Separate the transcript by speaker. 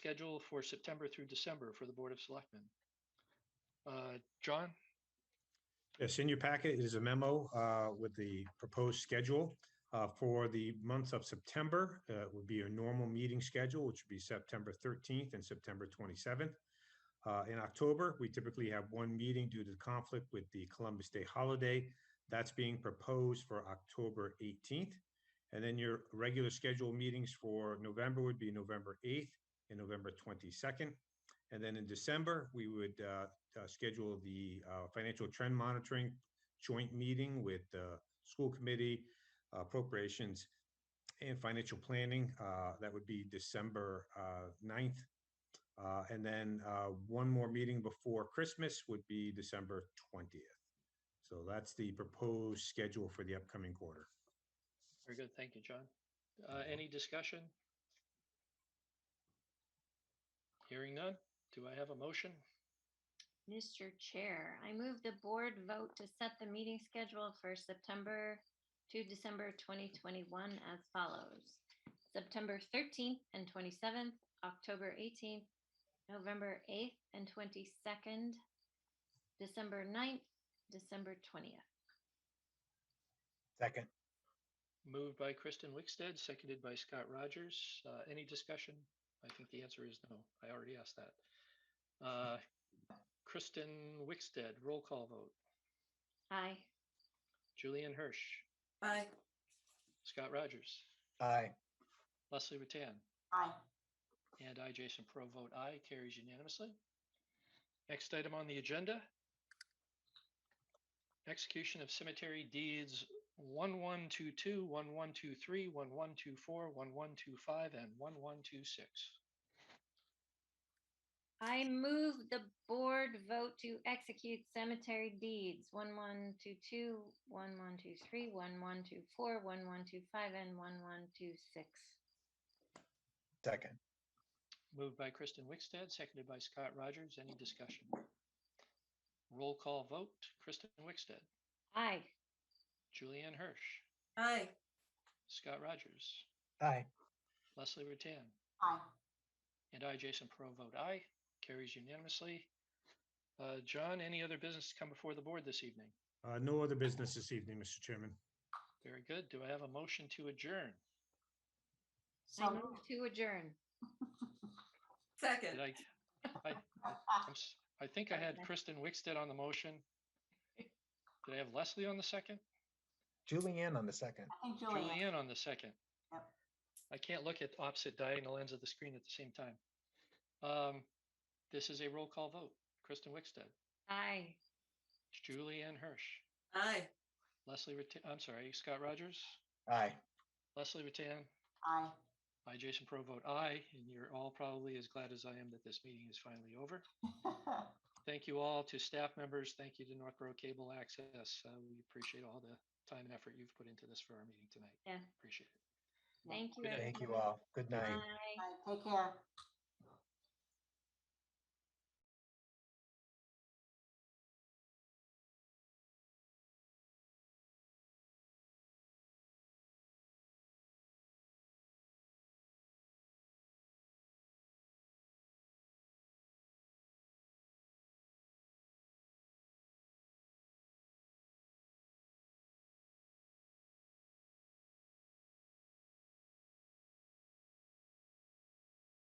Speaker 1: schedule for September through December for the Board of Selectmen. Uh, John,
Speaker 2: Yes, in your packet is a memo uh, with the proposed schedule uh, for the month of September. Uh, It would be a normal meeting schedule, which would be September 13th and September 27th. Uh, In October, we typically have one meeting due to conflict with the Columbus Day holiday. That's being proposed for October 18th. And then your regular scheduled meetings for November would be November 8th and November 22nd. And then in December, we would uh, uh, schedule the uh, financial trend monitoring joint meeting with the school committee, appropriations, and financial planning. Uh, That would be December uh, 9th. Uh, And then uh, one more meeting before Christmas would be December 20th. So that's the proposed schedule for the upcoming quarter.
Speaker 1: very good. Thank you, John. Uh, any discussion? Hearing none. Do I have a motion?
Speaker 3: Mr. Chair, I move the board vote to set the meeting schedule for September to December 2021 as follows. September 13th and 27th, October 18th, November 8th and 22nd, December 9th, December 20th.
Speaker 4: Second,
Speaker 1: Moved by Kristen Wickstead, seconded by Scott Rogers. Uh, any discussion? I think the answer is no. I already asked that. Uh, Kristen Wickstead, roll call vote.
Speaker 3: Aye.
Speaker 1: Julian Hirsch,
Speaker 5: Aye.
Speaker 1: Scott Rogers,
Speaker 4: aye.
Speaker 1: Leslie Ratan.
Speaker 5: Aye.
Speaker 1: And I, Jason Pro, vote aye, carries unanimously. Next item on the agenda. Execution of cemetery deeds 1122, 1123, 1124, 1125, and 1126.
Speaker 3: I move the board vote to execute cemetery deeds one, one, two, two, one, one, two, three, one, one, two, four, one, one, two, five, and one, one, two, six.
Speaker 4: Second,
Speaker 1: Moved by Kristen Wickstead, seconded by Scott Rogers. Any discussion? Roll call vote, Kristen Wickstead,
Speaker 3: Aye.
Speaker 1: Julianne Hirsch,
Speaker 5: Aye.
Speaker 1: Scott Rogers,
Speaker 4: aye.
Speaker 1: Leslie Ratan.
Speaker 5: Aye.
Speaker 1: And I, Jason Pro, vote aye. Carries unanimously. Uh, John, any other business to come before the board this evening?
Speaker 2: Uh, No other business this evening, Mr. Chairman.
Speaker 1: Very good. Do I have a motion to adjourn?
Speaker 3: I
Speaker 5: So
Speaker 3: move to adjourn.
Speaker 1: Did
Speaker 5: second.
Speaker 1: I, I, I'm s- I think I had Kristen Wickstead on the motion. Did I have Leslie on the second?
Speaker 4: Julianne on the second.
Speaker 5: think
Speaker 1: Julianne on the second?
Speaker 5: Yep.
Speaker 1: I can't look at opposite diagonal ends of the screen at the same time. Um, This is a roll call vote. Kristen Wickstead,
Speaker 3: Aye.
Speaker 1: Julianne Hirsch,
Speaker 5: Aye.
Speaker 1: Leslie, Ratan- I'm sorry, Scott Rogers,
Speaker 4: Aye.
Speaker 1: Leslie Ratan,
Speaker 5: Aye.
Speaker 1: I, Jason Pro, vote aye, and you're all probably as glad as I am that this meeting is finally over. Thank you all to staff members. Thank you to Northborough Cable Access. Uh, We appreciate all the time and effort you've put into this for our meeting tonight.
Speaker 3: Yeah.
Speaker 1: Appreciate it.
Speaker 3: Thank you.
Speaker 1: Good night.
Speaker 4: Thank you
Speaker 3: everyone.
Speaker 4: all. Good night.
Speaker 3: Aye.
Speaker 5: Aye, Take care.